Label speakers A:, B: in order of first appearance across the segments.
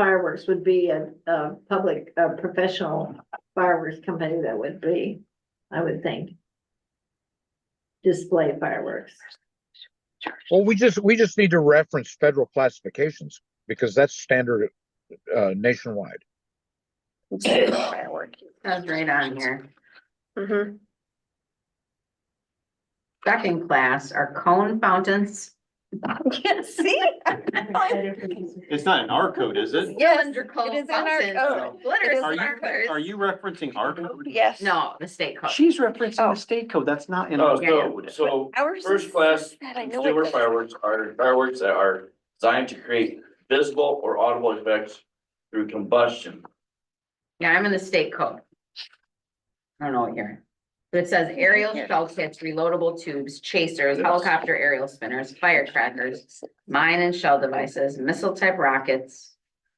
A: fireworks would be a, a public, a professional fireworks company that would be, I would think. Display fireworks.
B: Well, we just, we just need to reference federal classifications because that's standard uh, nationwide.
C: That's right on here. Second class are cone fountains. I Can't see.
D: It's not in our code, is it?
E: Yes,
C: Under
E: it
C: cone
E: is in our
C: fountains.
E: code.
C: Glitter
E: It is
C: is
D: Are
C: in our
D: you, are
C: code.
D: you referencing our code?
E: Yes.
C: No, the state code.
D: She's referencing
E: Oh.
D: the state code. That's not in
F: Oh,
D: our
F: so,
D: code.
F: so
E: Ours
F: first
E: is-
F: class
E: That I know
F: consumer
E: it is.
F: fireworks are fireworks that are designed to create visible or audible effects through combustion.
C: Yeah, I'm in the state code. I don't know what you're. But it says aerial shell kits, reloadable tubes, chasers, helicopter aerial spinners, firecrackers, mine and shell devices, missile type rockets,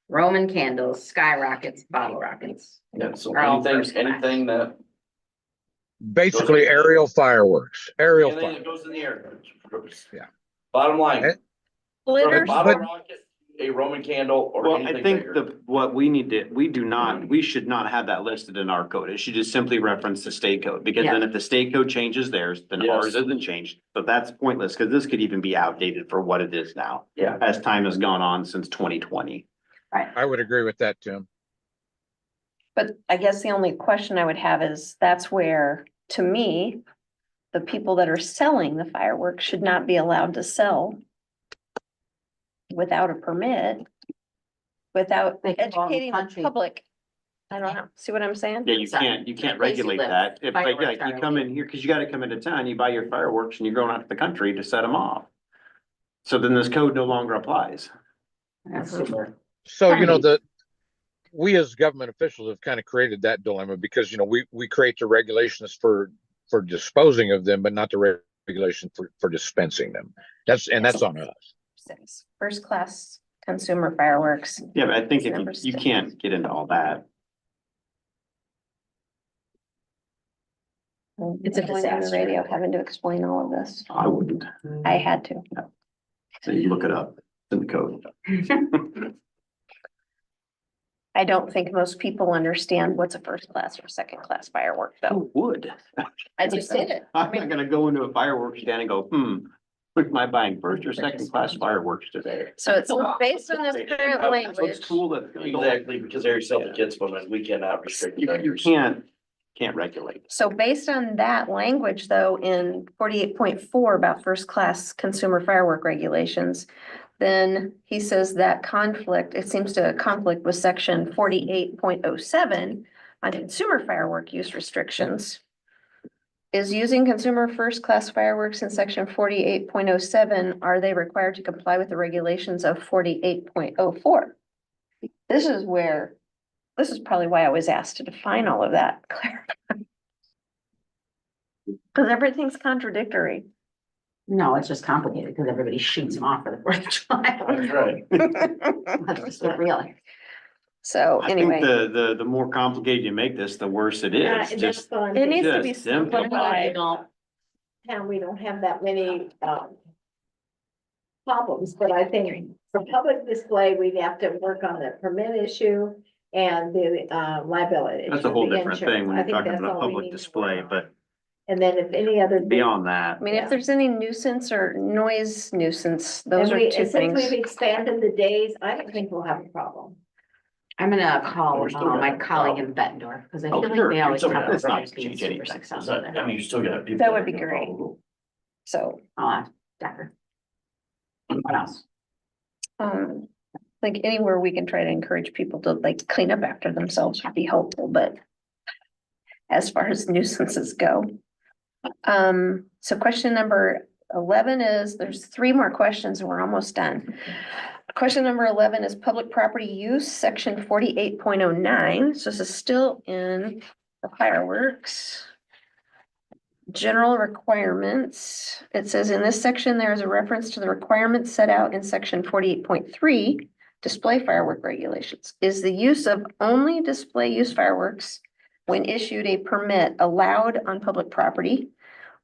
C: Roman candles, sky rockets, bottle rockets.
F: Yeah, so
C: Are all first
F: anything,
C: class.
F: anything that,
B: Basically aerial fireworks, aerial
F: anything that
B: fireworks.
F: goes in the air.
B: Yeah.
F: Bottom line,
B: Eh?
F: from a
E: Glitter,
F: bottle rocket, a Roman candle or
D: Well, I
F: anything
D: think
F: bigger.
D: the, what we need to, we do not, we should not have that listed in our code. It should just simply reference the state code. Because then if the state code changes theirs, then ours
F: Yes.
D: isn't changed. But that's pointless because this could even be outdated for what it is now.
F: Yeah.
D: As time has gone on since twenty twenty.
B: I would agree with that, Tim.
G: But I guess the only question I would have is, that's where, to me, the people that are selling the fireworks should not be allowed to sell without a permit, without
C: They can go out in the
G: educating the
C: country.
G: public. I don't know, see what I'm saying?
D: Yeah, you
C: Sorry.
D: can't, you can't
C: Place you
D: regulate
C: live.
D: that. If, like,
C: Fireworks
D: yeah,
C: are
D: you come in here, because you gotta come into town, you buy your fireworks and you're going out to the country to set them off. So then this code no longer applies.
C: That's super.
B: So, you know,
C: Right.
B: the, we as government officials have kind of created that dilemma because, you know, we, we create the regulations for, for disposing of them, but not the re- regulation for, for dispensing them. That's, and that's on us.
G: Six, First class consumer fireworks.
D: Yeah, but I think if
G: Number
D: you, you
G: six.
D: can't get into all that.
C: It's a
G: Going on the
C: disaster. Mm-hmm.
G: Radio having to explain all of this,
D: I wouldn't.
G: I had to.
D: So you look it up in the code.
G: I don't think most people understand what's a first class or second class firework, though.
D: Who would?
G: I just did it.
D: I'm not gonna go into a fireworks stand and go, hmm, what am I buying first or second class fireworks today?
G: So it's based on this current
D: So It's
G: language.
D: cool that.
F: Exactly, because they're selling kids, but we cannot restrict.
D: You, you
F: fireworks.
D: can't, can't regulate.
G: So based on that language, though, in forty-eight point four about first-class consumer firework regulations, then he says that conflict, it seems to conflict with section forty-eight point oh seven on consumer firework use restrictions. Is using consumer first-class fireworks in section forty-eight point oh seven, are they required to comply with the regulations of forty-eight point oh four? This is where, this is probably why I was asked to define all of that, Claire. Cause everything's contradictory.
C: No, it's just complicated because everybody shoots them off for the Fourth of
F: That's
C: July.
F: right.
C: That's just not real.
G: So
D: I think
G: anyway,
D: the, the, the more complicated you make this, the worse it
A: Yeah,
D: is.
A: and
D: Just
A: that's what I'm
G: it
A: thinking.
G: needs to be
D: Yes, them
G: simplified.
C: No,
A: town, we don't have that many, um. Problems, but I think for public display, we'd have to work on the permit issue and the, uh, liability.
D: That's a
A: issue,
D: whole
A: the
D: different thing
A: insurance.
D: when
A: I
D: you're
A: think
D: talking
A: that's
D: about a
A: all we need
D: public
A: to work
D: display,
A: on.
D: but
A: And then if any other.
D: beyond that.
G: I mean,
A: Yeah.
G: if there's any nuisance or noise nuisance, those
A: And
G: are
A: we,
G: two
A: and since we've
G: things.
A: expanded the days, I don't think we'll have a problem.
C: I'm gonna call
F: We're still
C: uh,
F: gonna
C: my
F: have a
C: colleague in
F: problem.
C: Bettendorf, because I
F: Oh,
C: feel like
F: sure,
C: they
F: it's
C: always talk
F: okay.
C: about
F: It's not
C: things
F: gonna
C: being
F: change
C: super
F: anything. It's
C: successful
F: not- I
C: there.
F: mean, you still got people.
G: That
F: are
G: would be
F: gonna
G: great.
F: follow
G: So,
C: Uh, Decker. What else?
G: um, like anywhere we can try to encourage people to like clean up after themselves would be helpful, but as far as nuisances go. Um, so question number eleven is, there's three more questions and we're almost done. Question number eleven is public property use, section forty-eight point oh nine, so this is still in the fireworks. General requirements, it says in this section, there is a reference to the requirements set out in section forty-eight point three. Display firework regulations, is the use of only display use fireworks when issued a permit allowed on public property?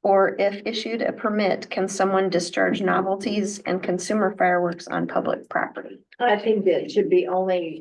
G: Or if issued a permit, can someone discharge novelties and consumer fireworks on public property?
A: I think that it should be only